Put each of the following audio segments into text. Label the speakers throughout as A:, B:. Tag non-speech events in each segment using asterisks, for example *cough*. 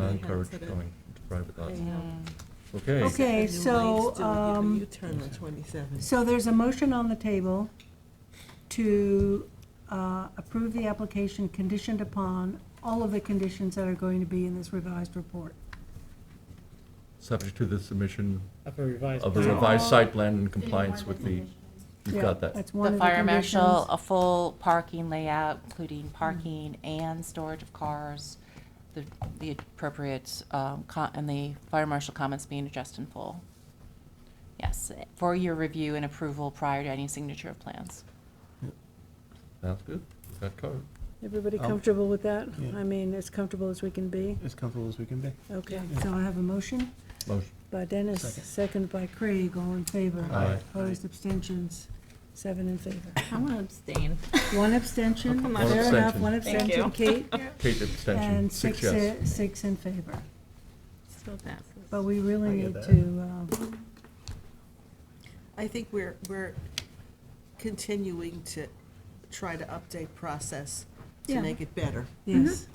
A: not
B: Yeah.
A: encourage
B: Yeah.
A: going to private lots.
B: Yeah.
A: Okay.
C: Okay. so, um,
B: You turn on 27.
C: So there's a motion on the table to uh, approve the application conditioned upon all of the conditions that are going to be in this revised report.
A: Subject to the submission
D: Of a revised.
A: of a
D: plan.
A: revised site plan in compliance with the, you've
C: Yeah,
A: got that.
C: That's one of the
E: The fire marshal,
C: conditions.
E: a full parking layout, including parking and storage of cars, the, the appropriate, um, co- and the fire marshal comments being addressed in full. Yes, for your review and approval prior to any signature of plans.
A: Sounds good. We've Got covered.
F: Everybody
A: Oh.
D: Um,
F: comfortable with that?
D: yeah.
F: I mean, as comfortable as we can be?
D: As comfortable as we can be.
F: Okay.
C: So I have a motion.
A: Motion.
F: By Dennis,
D: Second.
F: second by Craig,
C: Craig, all in favor?
A: Aye.
C: Opposed, abstentions,
F: seven in favor.
B: I'm going to abstain.
C: one abstention.
A: One
C: Fair enough,
A: abstention.
C: one
B: Thank
C: abstention, Kate.
A: Kate, abstention,
C: And
A: six
C: six,
A: yes.
C: i- six in favor.
B: So
C: But
B: passes.
C: we really
D: I get
C: need
D: that.
C: to, uh,
B: I think we're, we're continuing to try to update process to
C: Yeah.
B: make it better.
C: yes.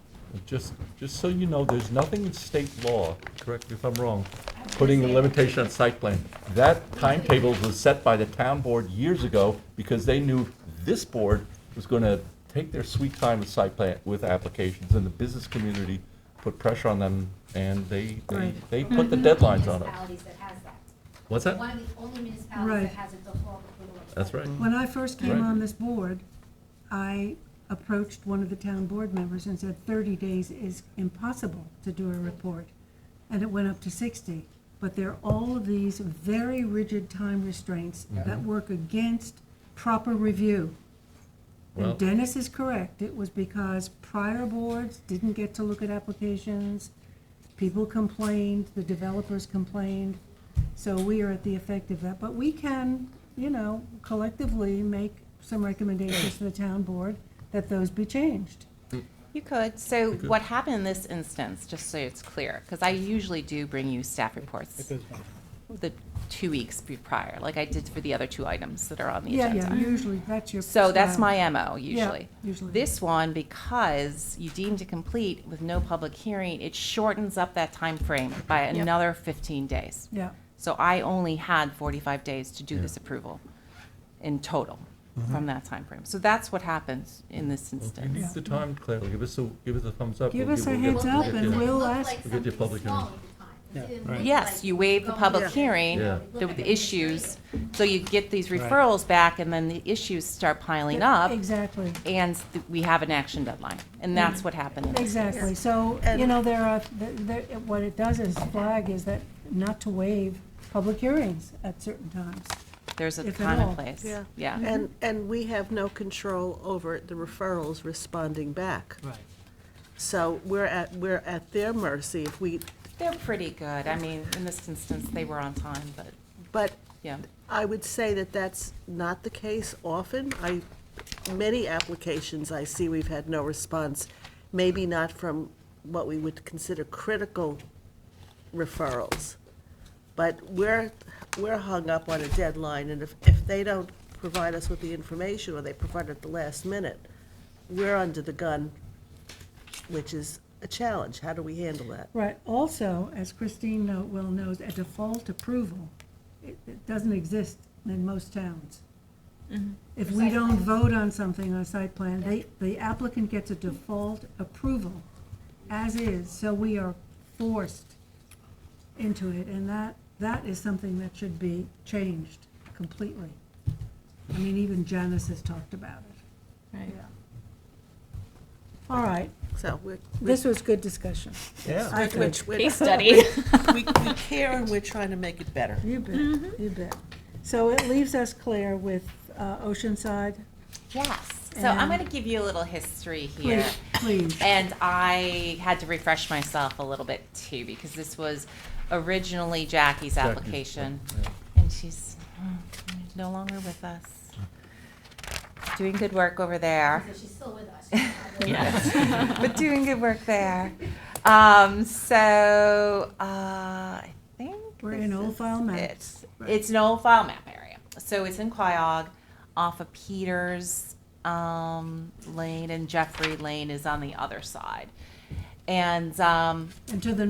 A: Just, just so you know, there's nothing in state law, correct me if I'm wrong, putting a limitation on site plan. That timetable was set by the town board years ago because they knew this board was gonna take their sweet time with site plan, with applications, and the business community put pressure on them, and they, they,
C: Right.
A: they put the deadlines on us.
G: Municipalities that has that.
A: What's
G: One
A: that?
G: of the only municipalities
C: Right.
G: that has a default approval.
A: That's right.
C: When I first came
A: Right.
C: on this board, I approached one of the town board members and said, thirty days is impossible to do a report. And it went up to sixty. But there are all of these very rigid time restraints
A: Mm-hmm.
C: that work against proper review.
A: Well-
C: And Dennis is correct. It was because prior boards didn't get to look at applications. People complained, the developers complained. So we are at the effect of that, but we can, you know, collectively make some recommendations to the town board that those be changed.
E: You could. So
A: You could.
E: what happened in this instance, just so it's clear, because I usually do bring you staff
D: It
E: reports
D: goes back.
E: the two weeks be- prior, like I did for the other two items that are on the
C: Yeah,
E: agenda.
C: yeah, usually, that's your.
E: So that's
C: style.
E: my MO usually.
C: usually.
E: This one, because you deemed it complete with no public hearing, it shortens up that time frame by another fifteen days.
C: Yeah,
E: So I only had forty-five days to do
A: Yeah.
E: this approval in total from that time frame. So that's what happens in this
A: Well, if You need
E: instance.
A: the time, Claire, give us a, give us a thumbs up.
C: Give
A: We'll
C: us a
A: we'll
C: heads
A: we'll
C: up
A: get
C: and
A: you.
C: we'll ask-
A: We'll get the public hearing.
E: Yes, you waive the public hearing,
A: Yeah.
E: the the issues, so you get these
D: Right.
E: referrals back and then the issues start piling up.
C: exactly,
E: and th- we have an action deadline. And that's what happened in this case.
C: exactly. So, you
B: And-
C: know, there are, there- there, what it does is flag is that not to waive public hearings at certain times.
E: There's a
C: If at all,
E: common place.
B: yeah.
E: Yeah.
B: And, and we have no control over the referrals responding back.
D: Right.
B: So we're at, we're at their mercy if we,
E: They're pretty good. I mean, in this instance, they were on time, but,
B: but
E: yeah.
B: I would say that that's not the case often. I, many applications I see, we've had no response, maybe not from what we would consider critical referrals. But we're, we're hung up on a deadline, and if, if they don't provide us with the information, or they provide it at the last minute, we're under the gun, which is a challenge. How do we handle that?
C: Right, also, as Christine know- well knows, a default approval, it it doesn't exist in most towns. If we don't vote on something on a site plan, they, the applicant gets a default approval as is, so we are forced into it, and that, that is something that should be changed completely. I mean, even Janice has talked about it.
B: Right.
C: All right,
B: So we're,
F: This was good discussion.
D: Yeah.
C: I think,
B: which, we,
E: Case study. *laughs*
B: we care, and we're trying to make it better.
C: you bet, you bet. So it leaves us, Claire, with uh, Oceanside,
E: Yes. So I'm
C: And-
E: going to give you a little history here.
C: Please, please.
E: And I had to refresh myself a little bit too, because this was originally Jackie's
A: Jackie's,
E: application.
A: yeah.
E: And she's mm, no longer with us. Doing good work over there.
G: So she's still
E: *laughs*
G: with us. She's not really-
A: *laughs*
G: *laughs*
E: but doing good work there. Um, so uh, I think
C: We're
E: this
C: in Old
E: is
C: File Map.
E: it.
C: Right.
E: It's an old file map area. So it's in Quiog, off of Peters um, Lane, and Jeffrey Lane is on the other side. And um,
C: and to the